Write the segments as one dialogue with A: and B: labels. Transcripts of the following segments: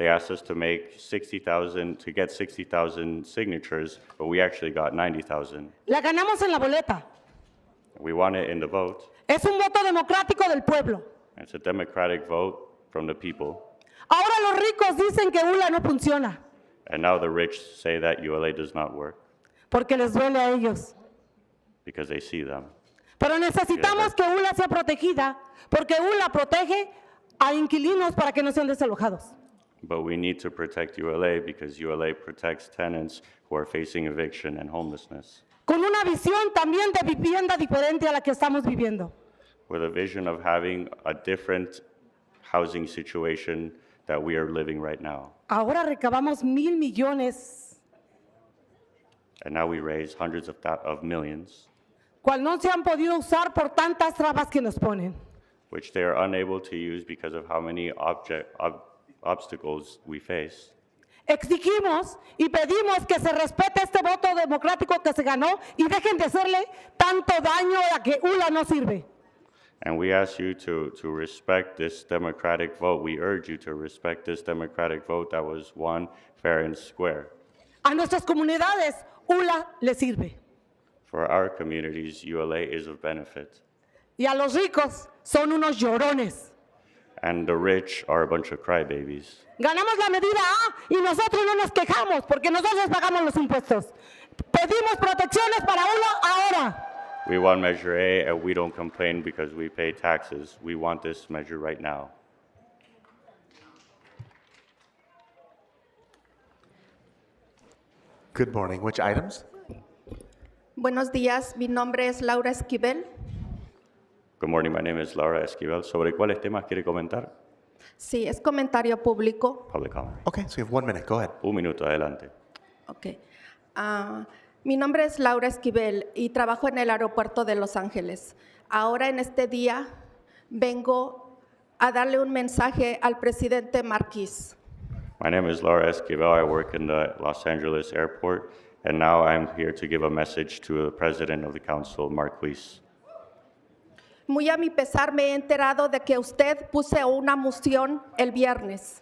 A: They asked us to make 60,000, to get 60,000 signatures, but we actually got 90,000.
B: La ganamos en la boleta.
A: We won it in the vote.
B: Es un voto democrático del pueblo.
A: It's a democratic vote from the people.
B: Ahora los ricos dicen que ULA no funciona
A: And now the rich say that ULA does not work
B: porque les duele a ellos.
A: because they see them.
B: Pero necesitamos que ULA sea protegida porque ULA protege a inquilinos para que no sean desalojados.
A: But we need to protect ULA because ULA protects tenants who are facing eviction and homelessness
B: Con una visión también de vivienda diferente a la que estamos viviendo.
A: with a vision of having a different housing situation that we are living right now.
B: Ahora recabamos mil millones,
A: And now we raise hundreds of, thou- of millions,
B: cual no se han podido usar por tantas trabas que nos ponen.
A: which they are unable to use because of how many object, ob- obstacles we face.
B: Exigimos y pedimos que se respete este voto democrático que se ganó y dejen de hacerle tanto daño a que ULA no sirve.
A: And we ask you to, to respect this democratic vote. We urge you to respect this democratic vote that was won fair and square.
B: A nuestras comunidades ULA le sirve
A: For our communities, ULA is of benefit.
B: y a los ricos son unos llorones.
A: And the rich are a bunch of crybabies.
B: Ganamos la medida A y nosotros no nos quejamos porque nosotros pagamos los impuestos. Pedimos protecciones para ULA ahora.
A: We want Measure A, and we don't complain because we pay taxes. We want this measure right now.
C: Good morning. Which items?
D: Buenos días, mi nombre es Laura Esquivel.
A: Good morning, my name is Laura Esquivel. ¿Sobre cuáles temas quiere comentar?
D: Sí, es comentario público.
A: Public comment.
C: Okay, so you have one minute. Go ahead.
A: Un minuto, adelante.
D: Ok. Ah, mi nombre es Laura Esquivel y trabajo en el aeropuerto de Los Ángeles. Ahora en este día vengo a darle un mensaje al presidente Marquis.
A: My name is Laura Esquivel. I work in the Los Angeles airport, and now I'm here to give a message to the president of the council, Marquise.
D: Muy a mi pesar me he enterado de que usted puso una moción el viernes.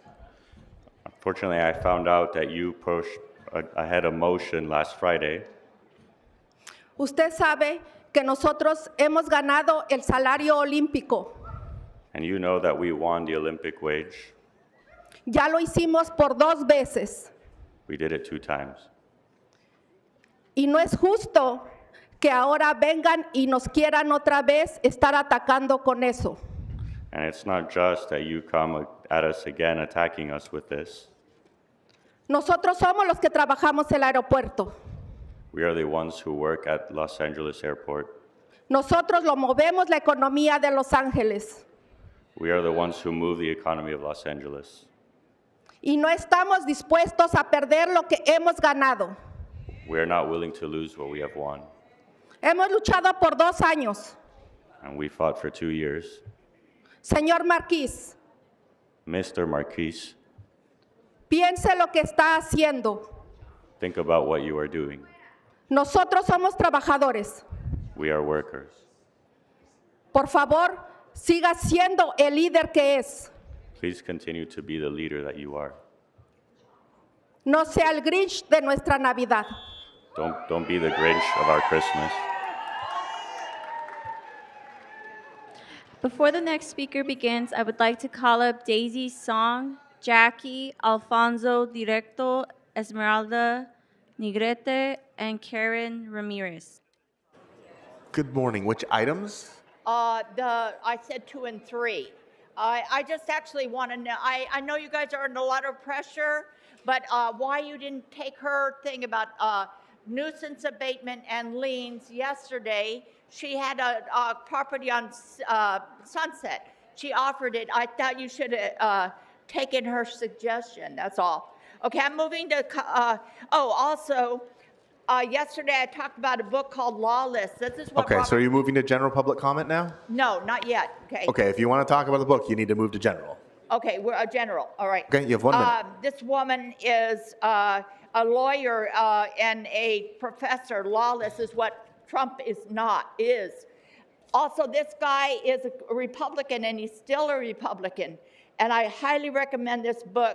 A: Unfortunately, I found out that you pushed a- ahead a motion last Friday.
D: Usted sabe que nosotros hemos ganado el salario olímpico.
A: And you know that we won the Olympic wage.
D: Ya lo hicimos por dos veces.
A: We did it two times.
D: Y no es justo que ahora vengan y nos quieran otra vez estar atacando con eso.
A: And it's not just that you come at us again attacking us with this.
D: Nosotros somos los que trabajamos el aeropuerto.
A: We are the ones who work at Los Angeles airport.
D: Nosotros lo movemos la economía de Los Ángeles.
A: We are the ones who move the economy of Los Angeles.
D: Y no estamos dispuestos a perder lo que hemos ganado.
A: We are not willing to lose what we have won.
D: Hemos luchado por dos años.
A: And we fought for two years.
D: Señor Marquís,
A: Mr. Marquise,
D: piense lo que está haciendo.
A: think about what you are doing.
D: Nosotros somos trabajadores.
A: We are workers.
D: Por favor, siga siendo el líder que es.
A: Please continue to be the leader that you are.
D: No sea el Grinch de nuestra Navidad.
A: Don't, don't be the Grinch of our Christmas.
E: Before the next speaker begins, I would like to call up Daisy Song, Jackie, Alfonso Directo, Esmeralda Nigrete, and Karen Ramirez.
C: Good morning. Which items?
F: Uh, the, I said two and three. I, I just actually want to know, I, I know you guys are under a lot of pressure, but, uh, why you didn't take her thing about, uh, nuisance abatement and liens yesterday? She had a, a property on, S- uh, Sunset. She offered it. I thought you should, uh, taken her suggestion, that's all. Okay, I'm moving to, co- uh, oh, also, uh, yesterday I talked about a book called Lawless. This is what
C: Okay, so
F: Robert
C: are you moving to general public comment now?
F: no, not yet. Okay.
C: Okay, if you want to talk about the book, you need to move to general.
F: Okay, we're a general. All right.
C: Okay, you have one minute.
F: Uh, this woman is uh, a lawyer uh, and a professor. Lawless is what Trump is not, is. Also, this guy is a Republican and he's still a Republican. And I highly recommend this book.